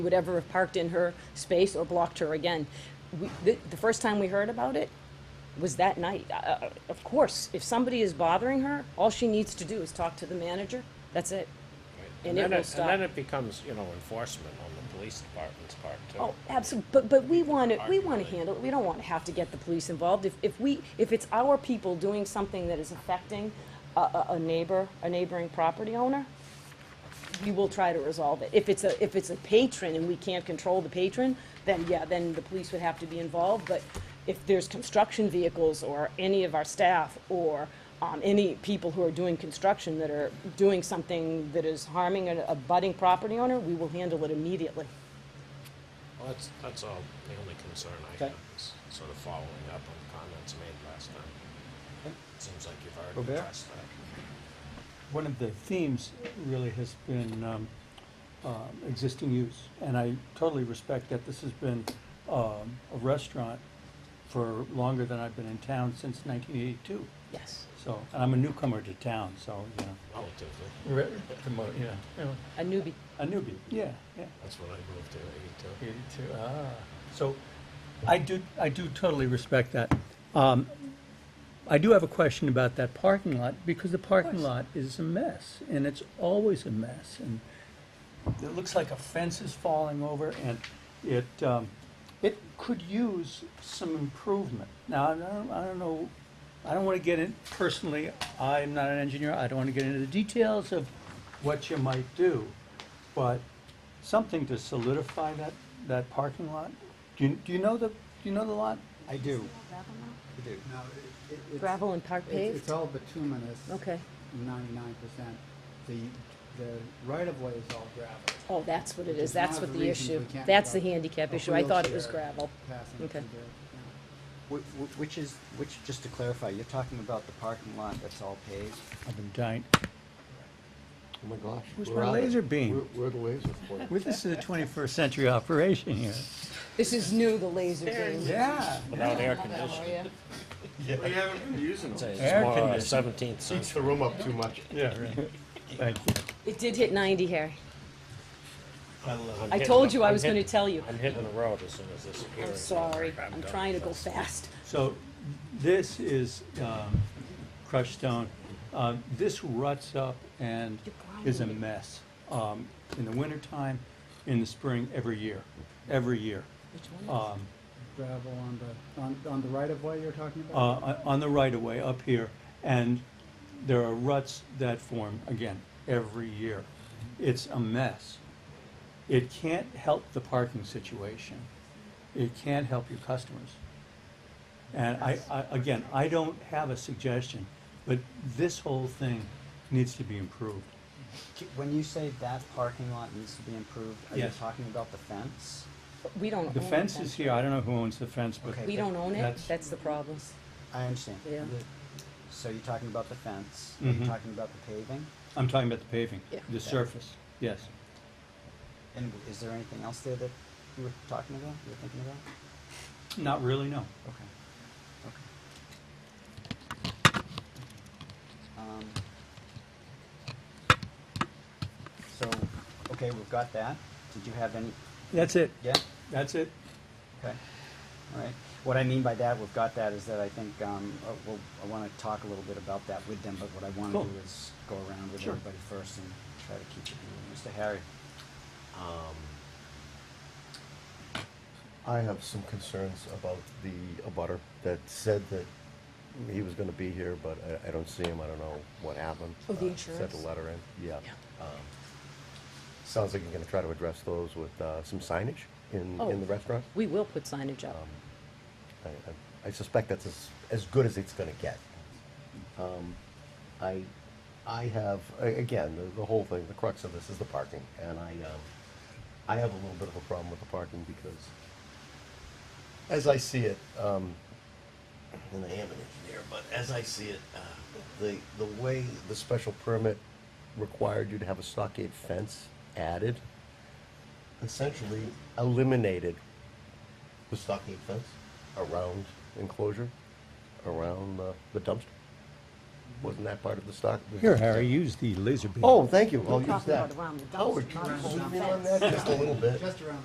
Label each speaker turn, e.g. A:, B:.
A: would ever have parked in her space or blocked her again. We, the, the first time we heard about it was that night. Uh, of course, if somebody is bothering her, all she needs to do is talk to the manager. That's it. And it
B: then
A: will stop.
B: And then it becomes, you know, enforcement on the police department's part too.
A: Oh, absolutely. But, but we want to, we want to handle it. We don't want to have to get the police involved. If, if we, if it's our people doing something that is affecting a, a, a neighbor, a neighboring property owner, we will try to resolve it. If it's a, if it's a patron and we can't control the patron, then yeah, then the police would have to be involved. But if there's construction vehicles or any of our staff or, um, any people who are doing construction that are doing something that is harming a, a budding property owner, we will handle it immediately.
B: Well, that's, that's all, the only concern I
C: Okay.
B: have is sort of following up on comments made last time.
C: Okay.
B: Seems like you've
C: Robert?
B: already addressed that.
C: One of the themes really has been um, um, existing use, and I totally respect that this has been um, a restaurant for longer than I've been in town since 1982.
A: Yes.
C: So, and I'm a newcomer to town, so, you know.
B: Relatively,
C: Re- promote, yeah. yeah.
A: A newbie.
C: A newbie, yeah, yeah.
B: that's when I moved E here, eighty-two.
C: Eighty-two, ah. So, I do, I do totally respect that. Um, I do have a question about that parking lot, because the parking lot is a mess, and it's always a mess, and it looks like a fence is falling over, and it, um, it could use some improvement. Now, I don't, I don't know, I don't wanna get in, personally, I'm not an engineer, I don't wanna get into the details of what you might do, but something to solidify that, that parking lot? Do you, do you know the, do you know the lot?
D: I do, I do.
E: No, it- it- it's-
A: Gravel and park
E: it's-
A: paved?
E: It's all bituminous.
A: Okay.
E: Ninety-nine percent. The, the right-of-way is all gravel.
A: Oh, that's what it
E: Which
A: is,
E: is
A: that's
E: one of
A: what
E: the
A: the
E: reasons
A: issue,
E: we can't
A: that's the
E: have
A: handicap
E: a
A: issue, I thought it was
E: wheelchair
A: gravel.
E: Passing
A: Okay.
E: through there, yeah.
D: Wh- wh- Which is, which, just to clarify, you're talking about the parking lot that's all paved?
C: I've been dying.
F: Oh my gosh.
C: Where's
F: we're
C: my
F: out of-
C: laser beam?
F: We're, we're the laser point.
C: Well, This is a twenty-first century operation here.
A: This is new, the laser game.
C: Yeah.
B: Without air conditioning.
F: We haven't been using
B: It's
C: Air
B: more a
C: conditioning.
B: seventeenth
F: Heats
B: century.
F: the room up too much.
C: Yeah, right. Thank you.
A: It did hit ninety, Harry.
B: I'm
A: I
B: hitting
A: told
B: the-
A: you I
B: I'm
A: was gonna
B: hitting-
A: tell you.
B: I'm hitting the road as soon as this hearing.
A: I'm sorry, I'm
B: done.
A: trying to go fast.
C: So this is um, crushed stone. Um, This ruts up and is a mess um, in the wintertime, in the spring, every year, every year. Um,
E: Gravel on the, on, on the right-of-way you're talking
C: uh,
E: about?
C: on on the right-of-way up here, and there are ruts that form, again, every year. It's a mess. It can't help the parking situation. It can't help your customers. And I, I, again, I don't have a suggestion, but this whole thing needs to be improved.
D: K- When you say that parking lot needs to be improved, are you
C: Yes.
D: talking about the fence?
A: We don't own
C: The fence is here, I don't know who owns the fence, but
D: Okay.
A: We don't own it,
C: That's-
A: that's the problem.
D: I understand.
A: Yeah.
D: So you're talking about the fence, are
C: Mhm.
D: you talking about the paving?
C: I'm talking about the paving,
A: Yeah.
C: the surface, yes.
D: And is there anything else there that you were talking about, you were thinking about?
C: Not really, no.
D: Okay, okay. Um, So, okay, we've got that. Did you have any,
C: That's it,
D: yeah?
C: that's it.
D: Okay, all right. What I mean by that, we've got that, is that I think, um, uh, we'll, I wanna talk a little bit about that with them, but what I wanna
C: Cool.
D: do is go around with
C: Sure.
D: everybody first and try to keep it moving. Mr. Harry,
F: I have some concerns about the abutter that said that he was gonna be here, but I, I don't see him. I don't know what happened.
A: Oh, the
F: Uh, Sent
A: insurance?
F: a letter in, yeah. Um, Sounds like you're gonna try to address those with, uh, some signage in,
A: Oh.
F: in the restaurant.
A: We will put signage up.
F: I- I, I suspect that's as, as good as it's gonna get. Um, I, I have, a- again, the, the whole thing, the crux of this is the parking, and I, um, I have a little bit of a problem with the parking because as I see it, um, and I am an engineer, but as I see it, uh, the, the way the special permit required you to have a stockade fence added, essentially eliminated the stockade fence around enclosure, around uh, the dumpster. Wasn't that part of the stock?
C: Here, Harry, use the laser beam.
F: Oh, thank you, I'll
A: We're
F: use
A: talking
F: that. Oh,
A: about around the dumpster,
F: Howard,
A: not
F: can you
A: around the
F: zoom in on
A: fence.
F: that just a little bit?
E: Just around